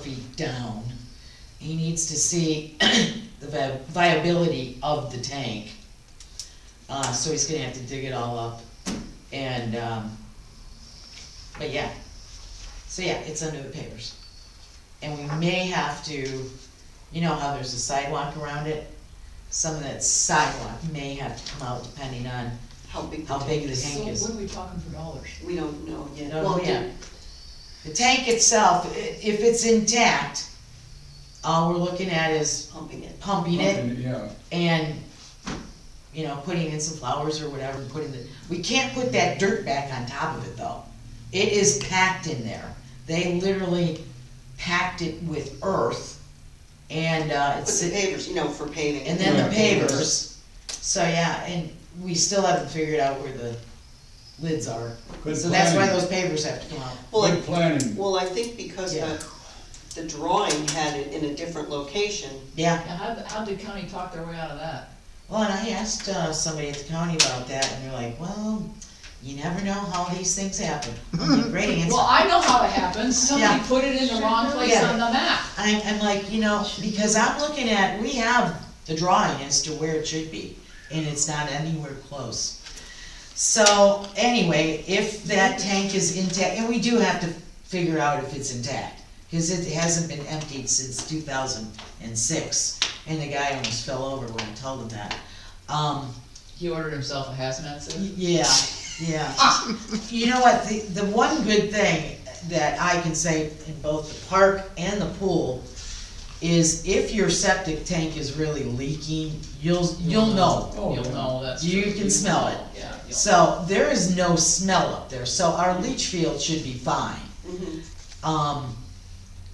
feet down. He needs to see the vi- viability of the tank. Uh, so he's gonna have to dig it all up and, um, but yeah. So yeah, it's under the papers. And we may have to, you know how there's a sidewalk around it? Some of that sidewalk may have to come out depending on, How big the How big tank the is? tank- So is- what are we talking for dollars? We don't know yet. Don't know Well, yet. the tank itself, i- if it's intact, all we're looking at is Pumping it. pumping it Yeah, and, you know, putting in some flowers or whatever, and putting the, we can't put that dirt back on top of it though. It is packed in there. They literally packed it with earth and, uh, But it's, the pavers, you know, for paving. and then the Yeah. pavers. So, yeah, and we still haven't figured out where the lids are. Good So that's why planning. those pavers have to come out. Well, good I- planning, well, I think because Yeah. the, the drawing had it in a different location, Yeah, Now, how, how did county talk their way out of that? well, and I asked, uh, somebody at the county about that and they're like, well, you never know how these things happen. I'm like, Great answer. Well, I know how it happens, somebody Yeah. put it in the wrong place Yeah. on the map. I'm, I'm like, you know, because I'm looking at, we have the drawing as to where it should be, and it's not anywhere close. So, anyway, if that tank is intact, and we do have to figure out if it's intact, cause it hasn't been emptied since two thousand and six, and the guy almost fell over when I told him that. Um, He ordered himself a hazmat suit. yeah, yeah. You know what, the, the one good thing that I can say in both the park and the pool is if your septic tank is really leaking, you'll, you'll know. Oh, You'll yeah. know, that's. You true. can smell it. Yeah. you'll- So there is no smell up there, so our leach field should be fine. Mhm. Um,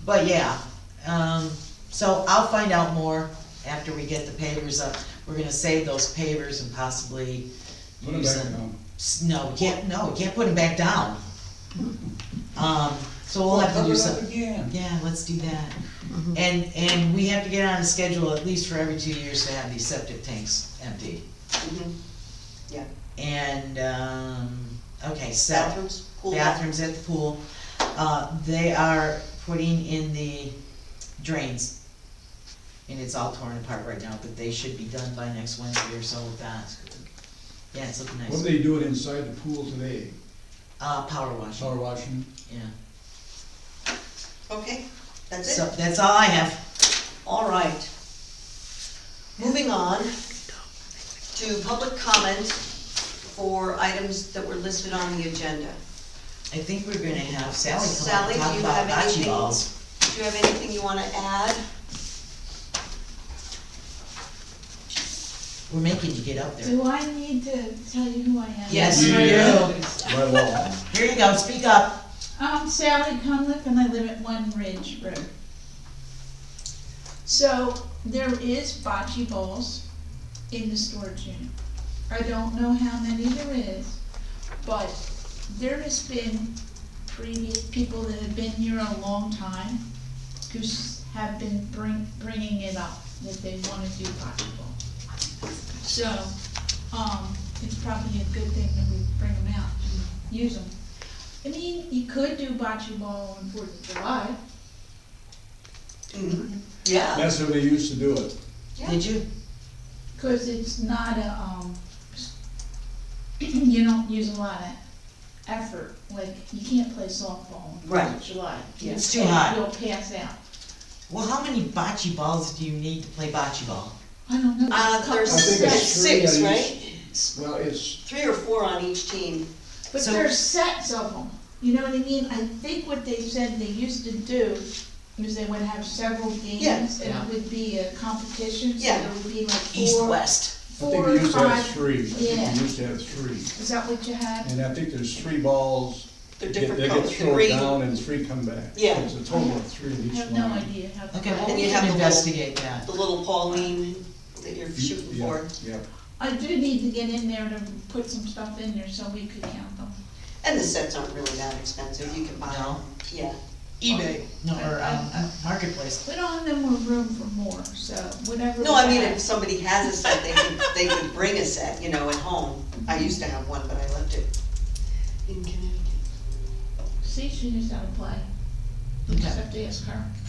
but yeah, um, so I'll find out more after we get the pavers up. We're gonna save those pavers and possibly put it use back them. down. S- No, we can't, no, we can't put them back down. Um, so we'll have to do Cover it some, up again. yeah, let's do that. And, and we have to get on a schedule at least for every two years to have these septic tanks empty. Mhm. And, um, okay, so bathrooms, pool. bathrooms at the pool, uh, they are putting in the drains. And it's all torn apart right now, but they should be done by next Wednesday or so with that. Yeah, it's looking What nice. do they do it inside the pool today? Uh, power washing, Power washing? yeah. Okay, that's So it, that's all I have. all right. Moving on to public comment for items that were listed on the agenda. I think we're gonna have Sally come up Sally, and do talk you about have bocce anything? balls. Do you have anything you wanna add? We're making you get up there. Do I need to tell you who I am? Yes, you Yeah. do. Here you go, speak up. I'm Um, Sally Cunliffe and I live at One Ridge Road. So there is bocce balls in the storage unit. I don't know how many there is, but there has been previous people that have been here a long time who s- have been bring, bringing it up, that they wanna do bocce ball. So, um, it's probably a good thing that we bring them out and use them. I mean, you could do bocce ball on Fourth of July. Mm-hmm. Yeah. That's how they used to do it. Yeah. Did you? 'Cause it's not a, um, you don't use a lot of effort, like, you can't play softball on Fourth Right. of July. It's too hot. You'll pass out. Well, how many bocce balls do you need to play bocce ball? I don't know. Uh, there's I think it's three six, on right? Well, it's, Three or four on each team. But So- there's sets of them, you know what I mean? I think what they said they used to do is they would have several games, and Yeah. it would be a competition, so Yeah. there would be like East, four, west. I think four they or used to have five. three. I think Yeah. they used to have three. Is that what you had? And I think there's three balls. They're They get- different They colors, get thrown green. down and three come back. Yeah. It's a total of three in I each have no line. idea how. Okay, well, And we you can have the little- investigate that. The little Pauline that you're shooting Yeah, for. Yeah, I do need to get in there to put some stuff in there so we could count them. And the sets aren't really that expensive, you can buy them, No. yeah. eBay. No, or, um, marketplace. We don't have no more room for more, so whatever. No, I we mean, have- if somebody has a set, they could, they could bring a set, you know, at home. I used to have one, but I left it in Connecticut. See, she knows how to play. You Just Okay. have to ask her.